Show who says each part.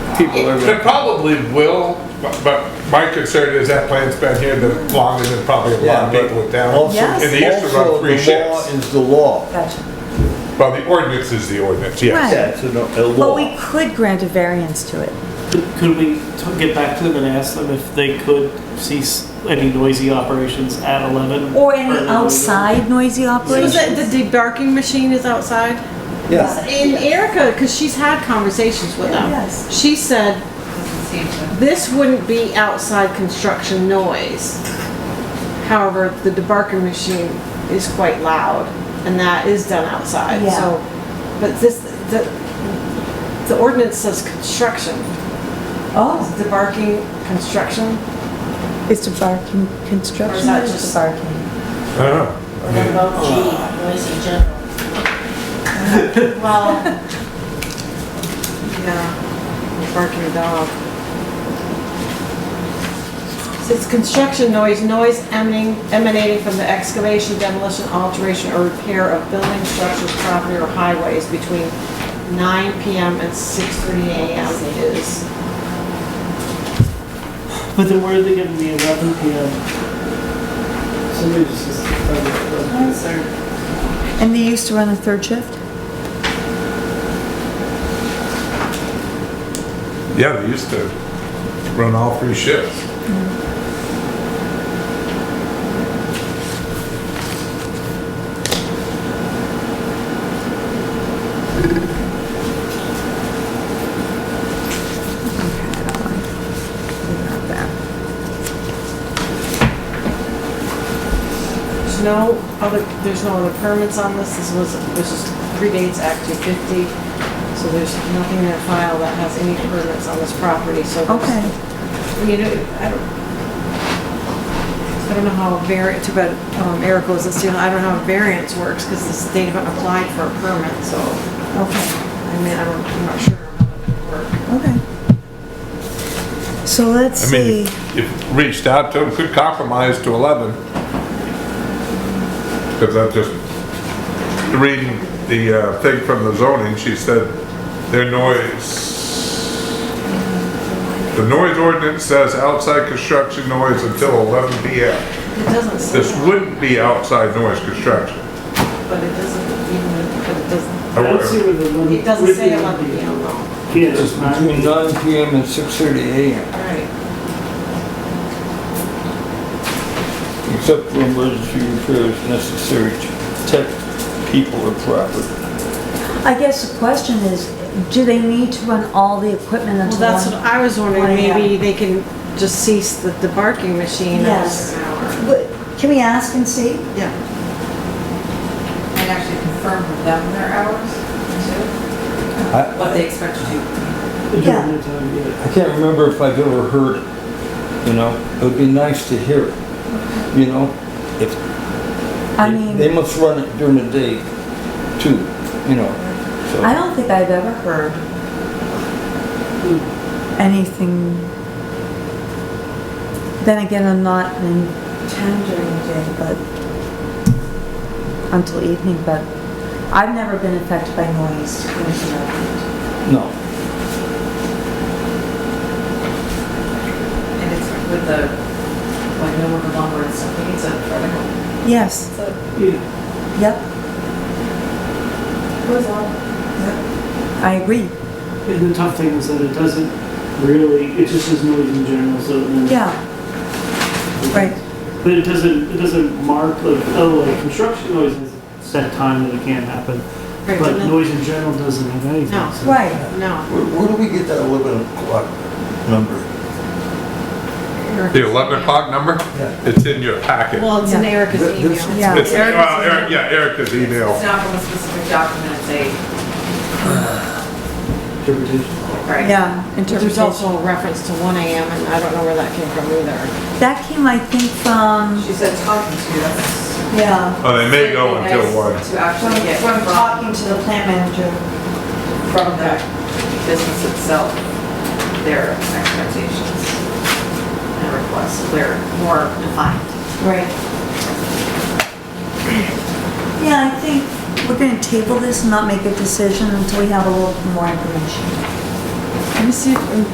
Speaker 1: people are
Speaker 2: It
Speaker 1: gonna,
Speaker 2: probably will, but- but my concern is that plant's been here the longer than probably a lot
Speaker 1: yeah,
Speaker 2: of
Speaker 1: but
Speaker 2: people in town.
Speaker 1: also,
Speaker 3: Yes.
Speaker 2: And they used to run
Speaker 1: also
Speaker 2: three
Speaker 1: the law
Speaker 2: shifts.
Speaker 1: is the law.
Speaker 3: Gotcha.
Speaker 2: Well, the ordinance is the ordinance,
Speaker 3: Right.
Speaker 2: yes.
Speaker 1: Yeah, it's a no- a
Speaker 3: But
Speaker 1: law.
Speaker 3: we could grant a variance to it.
Speaker 4: Could we t- get back to them and ask them if they could cease any noisy operations at 11?
Speaker 3: Or any
Speaker 4: Or-
Speaker 3: outside noisy
Speaker 5: So is
Speaker 3: operation.
Speaker 5: that the debarking machine is outside?
Speaker 1: Yeah,
Speaker 5: And Erica, because she's had conversations with them.
Speaker 3: Yes.
Speaker 5: She said, this wouldn't be outside construction noise. However, the debarking machine is quite loud and that is done outside,
Speaker 3: Yeah.
Speaker 5: so. But this, the, the ordinance says construction,
Speaker 3: Oh,
Speaker 5: debarking construction.
Speaker 3: is to barking construction?
Speaker 5: Or is that
Speaker 3: or
Speaker 5: just-
Speaker 3: barking?
Speaker 2: I don't know. I
Speaker 6: What
Speaker 2: mean,
Speaker 6: about G, noisy general? Well,
Speaker 5: Yeah, barking dog. It's construction noise, noise emanating, emanating from the excavation, demolition, alteration, or repair of building structures, property, or highways between 9 PM and 6:30 AM is,
Speaker 4: But then where are they giving the 11 PM? Somebody just says,
Speaker 3: And they used to run a third shift?
Speaker 2: Yeah, they used to run all three shifts.
Speaker 5: there's no other, there's no other permits on this, this was, this is predates Act 250, so there's nothing in that file that has any permits on this property, so. there's-
Speaker 3: Okay.
Speaker 5: You know, I don't, I don't know how a variant, too bad um, Eric was this, you know, I don't know how variance works because the state haven't applied for a permit, so,
Speaker 3: Okay,
Speaker 5: I mean, I don't, I'm not sure how that would work.
Speaker 3: okay. So let's
Speaker 2: I mean,
Speaker 3: see.
Speaker 2: if if reached out to them, could compromise to 11. Because I'm just reading the uh, thing from the zoning, she said their noise, the noise ordinance says outside construction noise until 11 PM.
Speaker 5: It doesn't say
Speaker 2: This
Speaker 5: that,
Speaker 2: wouldn't be outside noise construction.
Speaker 5: but it doesn't, even, but it doesn't,
Speaker 4: I don't see where the 11.
Speaker 5: it doesn't
Speaker 4: where's the
Speaker 5: say 11 PM though.
Speaker 4: Yeah,
Speaker 7: It's
Speaker 4: it's not-
Speaker 7: between 9 PM and 6:30 AM,
Speaker 5: Right.
Speaker 7: except for emergency repairs necessary to protect people or property.
Speaker 3: I guess the question is, do they need to run all the equipment
Speaker 5: Well,
Speaker 3: until
Speaker 5: that's what
Speaker 3: one?
Speaker 5: I was
Speaker 3: Why
Speaker 5: wondering,
Speaker 3: not?
Speaker 5: maybe they can just cease the debarking machine
Speaker 3: Yes.
Speaker 5: after an hour.
Speaker 3: But Can we ask and see?
Speaker 5: Yeah.
Speaker 6: and actually confirm with them their hours, too,
Speaker 7: I,
Speaker 6: what they expect to do.
Speaker 4: During
Speaker 3: Yeah.
Speaker 4: that time, yeah.
Speaker 7: I can't remember if I've ever heard it, you know? It would be nice to hear it, you know? If,
Speaker 3: I mean.
Speaker 7: they must run it during the day too, you know?
Speaker 3: I
Speaker 7: So
Speaker 3: don't think I've ever heard anything. Then again, I'm not in town during the day, but until evening, but I've never been affected by noise. when it's around.
Speaker 7: No,
Speaker 6: And it's with the, like, no one longer, it's, I think it's a vertical.
Speaker 3: Yes,
Speaker 4: Yeah.
Speaker 3: yep,
Speaker 6: Goes on.
Speaker 3: I agree.
Speaker 4: And the tough thing is that it doesn't really, it just is noise in general, so. then-
Speaker 3: Yeah, right.
Speaker 4: But it doesn't, it doesn't mark like, oh, like construction noise is set time that it can't happen.
Speaker 5: Right,
Speaker 4: But
Speaker 5: but no-
Speaker 4: noise in general doesn't have anything.
Speaker 5: No.
Speaker 4: so-
Speaker 3: Right.
Speaker 5: No.
Speaker 7: where, where do we get that 11 o'clock number?
Speaker 5: Eric-
Speaker 2: The 11 o'clock number?
Speaker 7: Yeah.
Speaker 2: It's in your packet.
Speaker 5: Well, it's in
Speaker 3: Yeah.
Speaker 5: Erica's
Speaker 7: Th-
Speaker 5: email.
Speaker 7: this-
Speaker 3: Yeah.
Speaker 2: It's,
Speaker 5: Erica's
Speaker 2: well,
Speaker 5: email.
Speaker 2: Eric- yeah, Erica's
Speaker 6: It's
Speaker 2: email.
Speaker 6: not from a specific document, it's a,
Speaker 7: Interpretation?
Speaker 6: right?
Speaker 3: Yeah,
Speaker 5: But There's
Speaker 3: interpretation.
Speaker 5: also a reference to one AM, and I don't know where that came from either.
Speaker 3: That came, I think, from,
Speaker 6: She said talking to us.
Speaker 3: yeah,
Speaker 2: Oh, they may go
Speaker 6: It'd be
Speaker 2: until
Speaker 6: nice
Speaker 2: 1.
Speaker 6: To
Speaker 3: from,
Speaker 6: actually get
Speaker 3: from
Speaker 6: from,
Speaker 3: talking to the plant manager.
Speaker 6: from the business itself, their expectations and requests, they're more defined.
Speaker 3: Right. Yeah, I think we're gonna table this and not make a decision until we have a little more information.
Speaker 5: Let me see if,